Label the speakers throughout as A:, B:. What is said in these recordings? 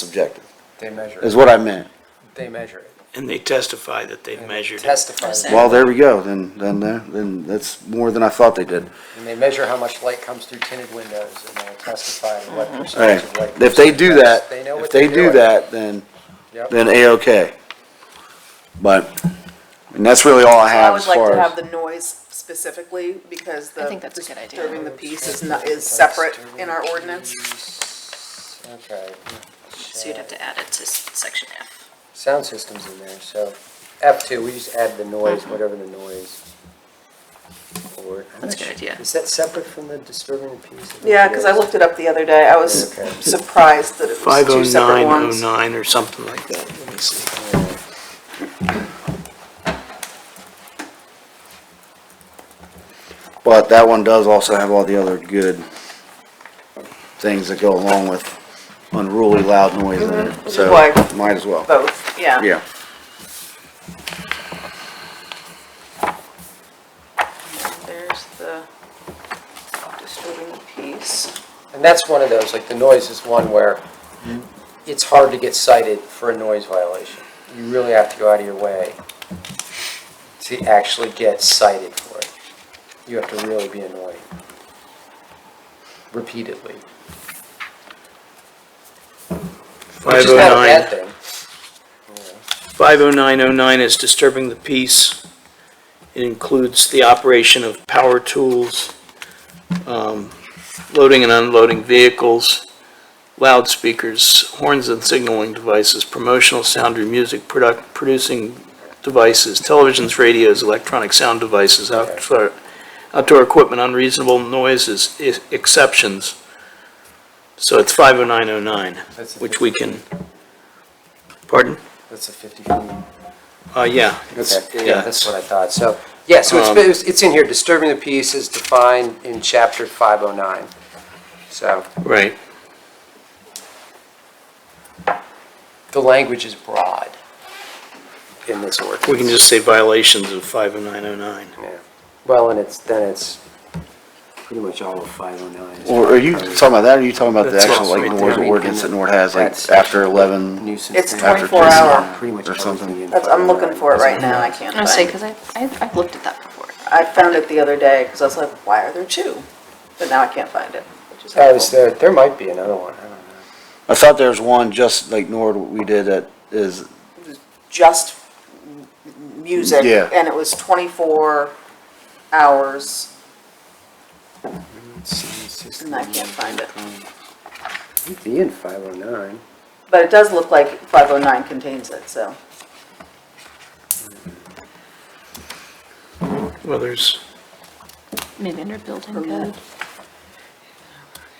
A: subjective,
B: They measure
A: is
B: it.
A: what I meant.
B: They measure it.
C: And they testify that they've
B: and
C: measured it.
B: Testify. that.
A: Well, there we go, then, then, there- then that's more than I thought they did.
B: And they measure how much light comes through tinted windows and they'll testify to what
A: Alright,
B: percentage of light.
A: if they do that,
B: They know
A: if
B: what
A: they
B: they're
A: do
B: doing.
A: that, then,
B: Yep.
A: then A-OK. But, and that's really all I
D: I
A: have
D: would
A: as
D: like
A: far
D: to have
A: as.
D: the noise specifically, because the.
E: I think that's a good idea.
D: Disturbing the peace is not, is separate in our ordinance.
B: Okay.
E: So you'd have to add it to s- section F.
B: Sound system's in there, so F two, we just add the noise, whatever the noise. Or- I'm
E: That's
B: not
E: a good
B: sure.
E: idea.
B: Is that separate from the disturbing the peace? don't
D: Yeah, because I
B: know.
D: looked it up the other day, I was
B: Okay.
D: surprised that it was two separate ones.
C: 50909 or something like that. Let me see.
A: But that one does also have all the other good things that go along with unruly loud noise in it,
D: is
A: so
D: Mm-hmm. why- Oh.
A: might as well.
D: Both, yeah.
A: Yeah,
D: There's the disturbing the peace.
B: And that's one of those, like the noise is one where it's hard to get cited for a noise violation. You really have to go out of your way to actually get cited for it. You have to really be annoying repeatedly. Which is not a bad
C: 509,
B: thing.
C: 50909 is disturbing the peace. It includes the operation of power tools, um, loading and unloading vehicles, loudspeakers, horns and signaling devices, promotional sound or music product, producing devices, televisions, radios, electronic sound devices, outdoor, outdoor equipment, unreasonable noises, e- exceptions. So it's 50909,
B: That's a
C: which we can, pardon?
B: That's a 50 feet.
C: Uh, yeah. Um, it's-
B: Okay, yeah, that's what I thought, so, yeah, so it's- it's, it's in here, disturbing the peace is defined in chapter 509. So
C: Right,
B: the language is broad in this ordinance.
C: we can just say violations of 50909.
B: Yeah, well, and it's, then it's pretty much all of 509.
A: or are you talking about that, or are you talking about the
C: That's
A: actual
C: also
A: like
C: right
A: noise
C: there.
A: ordinance that Nord has, like
B: That's-
A: after eleven?
B: Nuisance.
D: It's
B: thing.
D: 24
B: Pretty
D: hour.
B: much- Pretty much.
A: Or something.
B: everything in
D: That's, I'm looking
B: 509.
D: for it right now, I can't
E: I say,
D: find it.
E: because I, I've I've looked at that before.
D: I found it the other day, because I was like, why are there two? But now I can't find it, which is
B: Oh, is
D: helpful.
B: there, there might be another one, I don't know.
A: I thought there was one just like Nord we did that is
D: Just m- music,
A: Yeah.
D: and it was 24 hours. And I can't find it.
B: It'd be in 509.
D: But it does look like 509 contains it, so.
C: Well, there's,
E: Maybe under building code.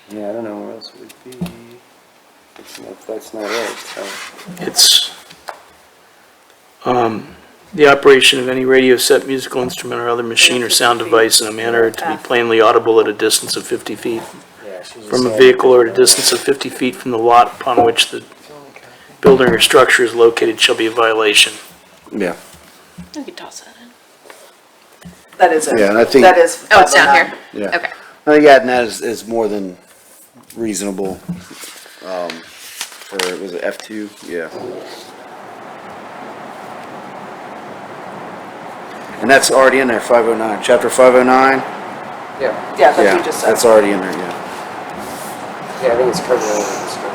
B: Yeah, I don't know where else it would be. It's not, that's not it, so.
C: it's, um, the operation of any radio set, musical instrument, or other machine or sound device in a manner to be plainly audible at a distance of 50 feet
B: Yeah, she's
C: from a
B: saying-
C: vehicle or at a distance of 50 feet from the lot upon which the building or structure is located shall be a violation.
A: yeah.
E: We could toss that in.
D: That is it.
A: Yeah, and I think-
D: That is.
E: Oh, it's down
D: 509.
E: here?
A: Yeah.
E: Okay.
A: I think adding that is, is more than reasonable. Um, for, was it F two? Yeah. And that's already in there, five oh nine, chapter five oh nine?
B: Yeah,
D: Yeah, that's what
A: Yeah,
D: you just said.
A: that's already in there, yeah.
B: yeah, I think it's covered under this one.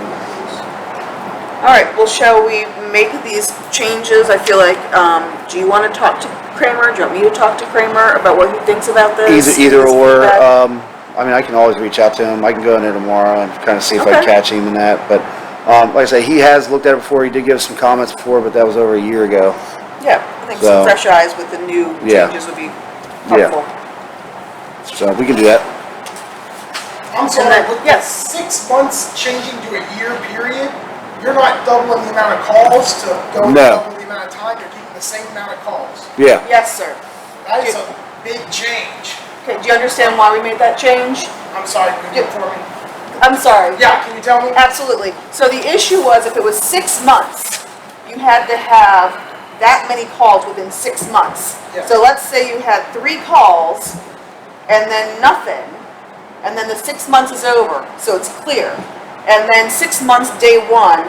D: All right, well, shall we make these changes? I feel like, um, do you want to talk to Kramer? Do you want me to talk to Kramer about what he thinks about this?
A: Either, either
D: His
A: or,
D: feedback?
A: um, I mean, I can always reach out to him, I can go in there tomorrow and kind of see if I can
D: Okay.
A: catch him in that, but, um, like I say, he has looked at it before, he did give us some comments before, but that was over a year ago.
D: Yeah, I think
A: so-
D: some fresh eyes with the new
A: Yeah.
D: changes would be
A: Yeah.
D: helpful.
A: So we can do that,
F: I'm
D: And
F: sorry,
D: then-
F: with the
D: yes.
F: six months changing to a year period, you're not doubling the amount of calls to go
A: No.
F: double the amount of time, you're keeping the same amount of calls.
A: yeah.
D: Yes, sir.
F: That is a big change.
D: Okay, do you understand why we made that change?
F: I'm sorry, could you get for me?
D: I'm sorry.
F: Yeah, can you tell me?
D: Absolutely. So the issue was if it was six months, you had to have that many calls within six months.
F: Yeah.
D: So let's say you had three calls and then nothing, and then the six months is over, so it's clear. And then six months, day one,